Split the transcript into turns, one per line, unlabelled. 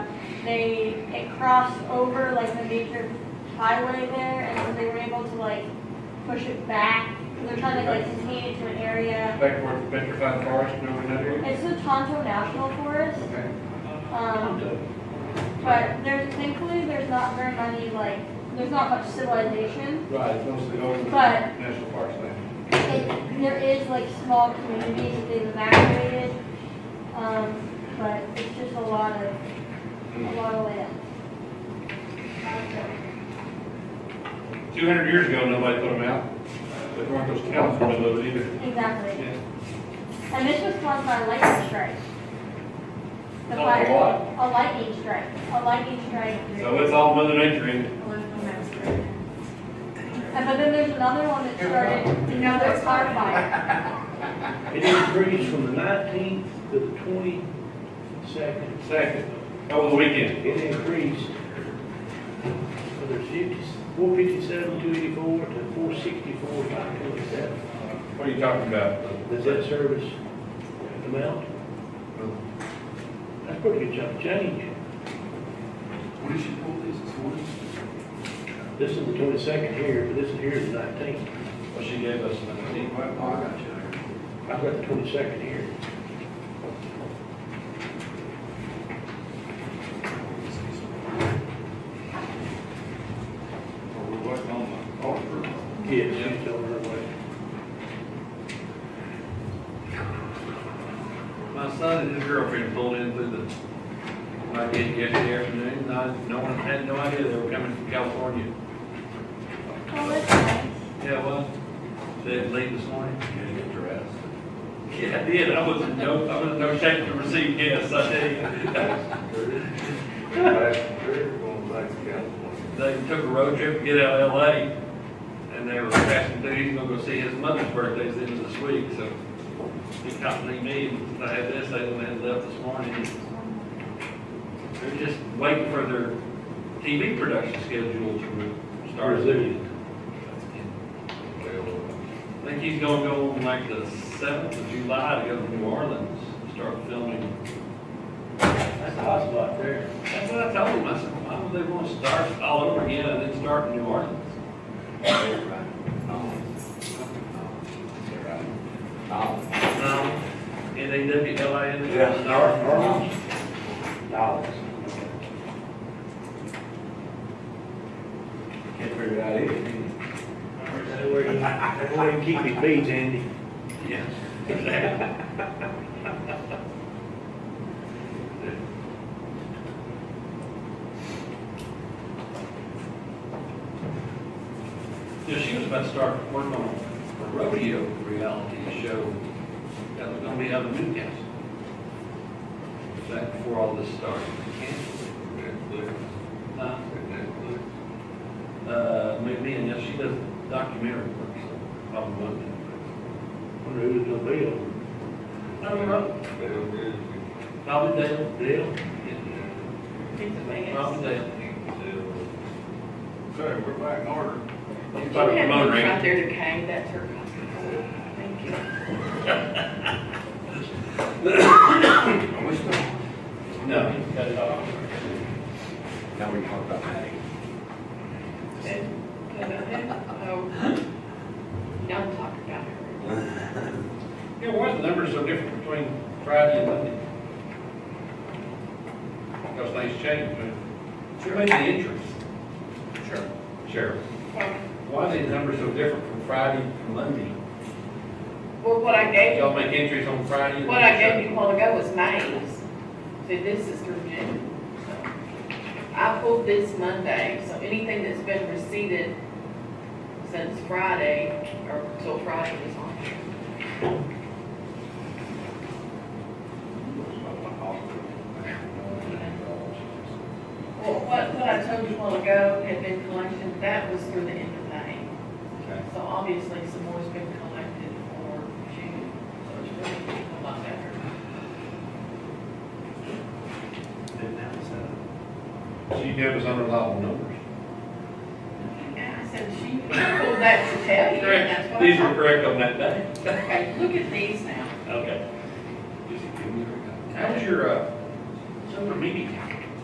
they, it crossed over like the major highway there, and so they were able to like push it back, 'cause they're trying to like contain it to an area.
Back towards the Petrified Forest, you know, in that area?
It's the Tonto National Forest,
Okay.
um, but there's, thankfully, there's not very many, like, there's not much civilization.
Right, it's mostly over the
But-
national parks land.
It, there is like small communities that they've evacuated, um, but it's just a lot of, a lot of land.
Two hundred years ago, nobody put them out. They weren't those cows for it either.
Exactly.
Yeah.
And this was caused by a lightning strike. The
Oh,
fire.
what?
A lightning strike, a lightning strike.
So it's all Mother Nature in it.
And but then there's another one that started, another car fire.
It increased from the nineteenth to the twenty-second.
Second, over the weekend.
It increased. So there's fifty, four fifty-seven, two eighty-four to four sixty-four, five twenty-seven.
What are you talking about?
Does that service amount? That's pretty good chunk of change.
What did she pull these this morning?
This is the twenty-second here, but this is here is the nineteenth.
Well, she gave us nineteen.
Oh, I got you.
I've got the twenty-second here.
Or we're waiting on the offer.
Yes, she's over her way.
My son and his girlfriend pulled in through the, my gate yesterday afternoon, and I, no one, had no idea they were coming from California.
Oh, that's nice.
Yeah, well, they had late this morning.
Can't get dressed.
Yeah, I did, I was in no, I was in no shape to receive guests, I tell you.
Back, we're going back to California.
They took a road trip to get out of LA, and they were passing through, he's gonna go see his mother's birthday is the end of this week, so he accompanied me, and I had this, they had left this morning. They're just waiting for their TV production schedule to start.
Brazilian.
I think he's gonna go on like the seventh of July to go to New Orleans, and start filming.
That's a hot spot there.
That's what I told him, I said, why would they wanna start all over again and then start in New Orleans? No, N A W L I N.
Yeah.
Start.
Dollars.
Can't figure it out either. can
That's where you, that's where you keep your beads, Andy.
Yes. Yeah, she was about to start working on a rodeo reality show that was gonna be out of Newcastle. Back before all this started.
you?
Uh,
Netflix,
uh, me me and, yeah, she does documentary work, so probably won't.
Wonder who's gonna be on
I don't know,
Netflix. They don't do it.
probably Dale,
the deal.
yeah,
It's a big ass.
probably Dale.
Sorry, we're back in order.
She
About
had
promoting.
these Out there to hang, that's her. Thank you.
Are we still?
No, he's got it all.
Now we talk about that.
And, and I think, oh, don't talk about her.
Yeah, why are the numbers so different between Friday and Monday? Because things change, but. Sure. Made the interest. Sure. Sure. Why are these numbers so different from Friday to Monday?
Well, what I gave you,
Y'all make entries on Friday? and
what I
Monday?
gave you a while ago was May's, so this is through June. I pulled this Monday, so anything that's been receipted since Friday, or till Friday is on here. Well, what, what I told you a while ago had been collected, that was through the end of May.
Okay.
So obviously, some more's been collected for June, so it's really a lot better.
So you gave us unreliable numbers.
And I said, she pulled that to tell you, and that's
Correct.
what I
These were correct on that day?
Okay, look at these now.
Okay. How's your, uh, summer meeting?